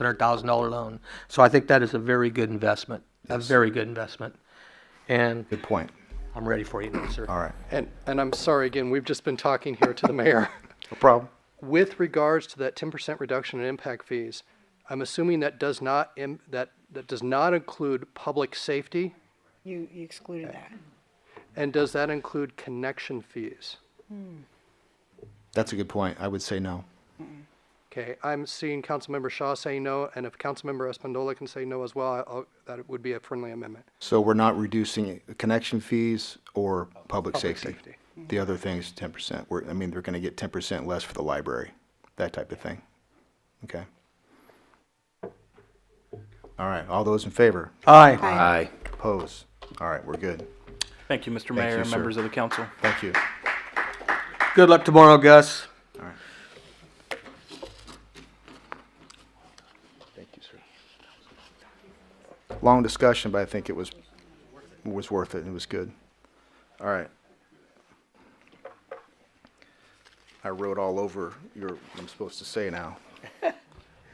hundred thousand dollar loan. So I think that is a very good investment, a very good investment. And Good point. I'm ready for you, now, sir. All right. And, and I'm sorry again, we've just been talking here to the mayor. No problem. With regards to that 10% reduction in impact fees, I'm assuming that does not, im- that, that does not include public safety? You, you excluded that. And does that include connection fees? That's a good point. I would say no. Okay, I'm seeing Councilmember Shaw say no, and if Councilmember Espandola can say no as well, I- I'll, that would be a friendly amendment. So we're not reducing connection fees or public safety. safety. The other thing is ten percent. We're, I mean, they're gonna get ten percent less for the library, that type of thing. Okay. All right, all those in favor? Aye. Aye. Oppose? All right, we're good. Thank you, Mr. Thank you, Mayor, sir. members of the council. Thank you. Good luck tomorrow, Gus. Thank you, sir. Long discussion, but I think it was, was worth it. It was good. All right. I wrote all over your, what I'm supposed to say now.